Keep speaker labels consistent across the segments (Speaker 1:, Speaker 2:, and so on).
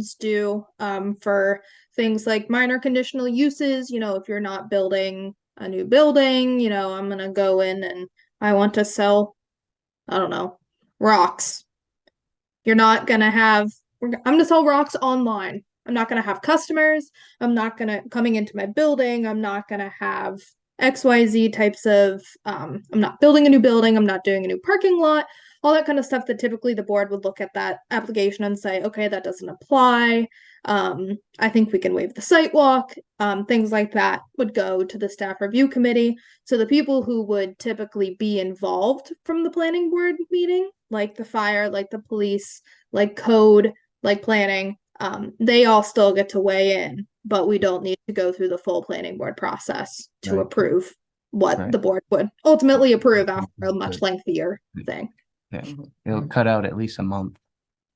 Speaker 1: is due um, for things like minor conditional uses. You know, if you're not building a new building, you know, I'm gonna go in and I want to sell, I don't know, rocks. You're not gonna have, we're g- I'm gonna sell rocks online. I'm not gonna have customers. I'm not gonna coming into my building. I'm not gonna have XYZ types of, um, I'm not building a new building. I'm not doing a new parking lot all that kind of stuff that typically the board would look at that application and say, okay, that doesn't apply. Um, I think we can waive the site walk. Um, things like that would go to the staff review committee. So the people who would typically be involved from the planning board meeting, like the fire, like the police, like code, like planning, um, they all still get to weigh in, but we don't need to go through the full planning board process to
Speaker 2: Right.
Speaker 1: approve what
Speaker 2: Right.
Speaker 1: the board would ultimately approve after a much
Speaker 2: Good.
Speaker 1: lengthier thing.
Speaker 2: It'll cut out at least a month,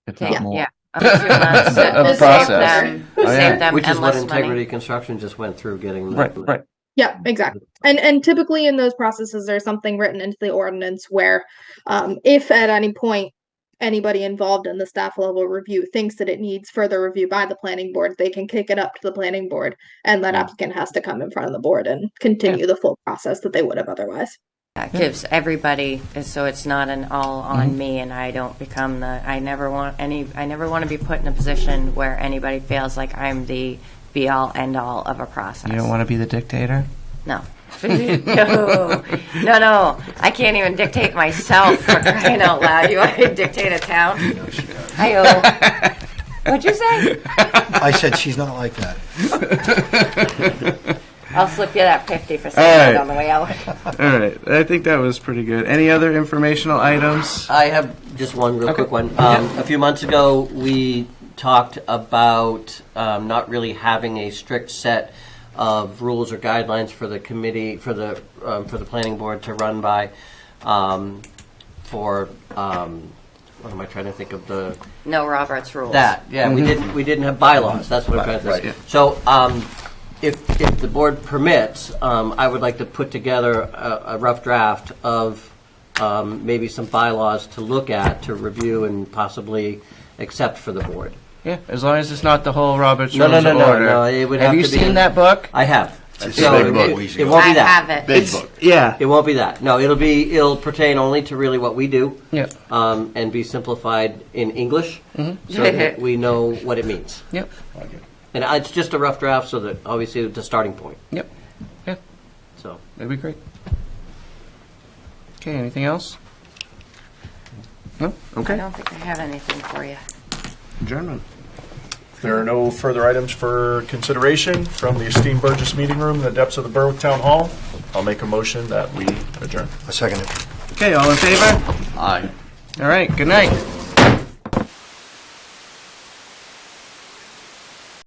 Speaker 2: if
Speaker 3: Yeah.
Speaker 2: not more.
Speaker 4: Mm. Yeah. Unless you wanna sa-
Speaker 2: Of
Speaker 4: save
Speaker 2: process.
Speaker 4: them-
Speaker 5: Oh, yeah.
Speaker 4: Save them
Speaker 5: Which is what
Speaker 4: endless
Speaker 5: Integrity
Speaker 4: money.
Speaker 5: Construction just went through getting. the-
Speaker 2: Right, right.
Speaker 1: Yeah,
Speaker 5: Mm.
Speaker 1: exactly. And and typically in those processes, there's something written into the ordinance where, um, if at any point anybody involved in the staff level review thinks that it needs further review by the planning board, they can kick it up to the planning board, and that
Speaker 2: Yeah.
Speaker 1: applicant has to come in front of the board and continue the full process that they would have otherwise.
Speaker 4: That gives everybody, so it's not an all on me and I don't become the, I never want any, I never want to be put in a position where anybody feels like I'm the be all end all of a process.
Speaker 2: You don't want to be the dictator?
Speaker 4: No. no, no, no. I can't even dictate myself for crying out loud. You want me to dictate a town? I owe. What'd you say?
Speaker 6: I said she's not like that.
Speaker 4: I'll slip you that 50 for
Speaker 2: All
Speaker 4: saying
Speaker 2: right.
Speaker 4: that on the way out.
Speaker 2: All right, I think that was pretty good. Any other informational items?
Speaker 5: I have just one real quick one. Um, a few months ago, we talked about um, not really having a strict set of rules or guidelines for the committee for the um, for the planning board to run by. Um, for um, what am I trying to think of the
Speaker 4: No Roberts rules.
Speaker 5: That, yeah,
Speaker 6: Mm-hmm.
Speaker 5: we didn't, we didn't have bylaws, that's what I'm trying to say. So, um, if, if the board permits, um, I would like to put together a, a rough draft of, um, maybe some bylaws to look at, to review and possibly accept for the board.
Speaker 2: Yeah, as long as it's not the whole Robert's
Speaker 5: No,
Speaker 2: Rules
Speaker 5: no,
Speaker 2: of
Speaker 5: no, no,
Speaker 2: Order.
Speaker 5: no, it would have
Speaker 2: Have
Speaker 5: to be.
Speaker 2: you seen
Speaker 5: in-
Speaker 2: that book?
Speaker 5: I have.
Speaker 6: It's a
Speaker 5: So
Speaker 6: big
Speaker 5: it-
Speaker 6: book.
Speaker 5: It it won't
Speaker 4: I
Speaker 5: be that.
Speaker 4: have it.
Speaker 6: Big book.
Speaker 2: Yeah.
Speaker 5: It won't be that. No, it'll be, it'll pertain only to really what we do.
Speaker 2: Yeah.
Speaker 5: Um, and be simplified in English,
Speaker 6: Mm-hmm.
Speaker 5: so that we know what it means.
Speaker 2: Yep,
Speaker 5: And I- it's just a rough draft, so that obviously it's a starting point.
Speaker 2: yep, yeah,
Speaker 5: So
Speaker 2: that'd be great. Okay, anything else? No?
Speaker 4: I
Speaker 2: Okay,
Speaker 4: don't think I have anything for you.
Speaker 2: adjournment.
Speaker 7: There are no further items for consideration from the esteemed Burgess Meeting Room in the depths of the Berwick Town Hall. I'll make a motion that we adjourn.
Speaker 6: A second. it.
Speaker 2: Okay, all in favor? Aye. All right, good night.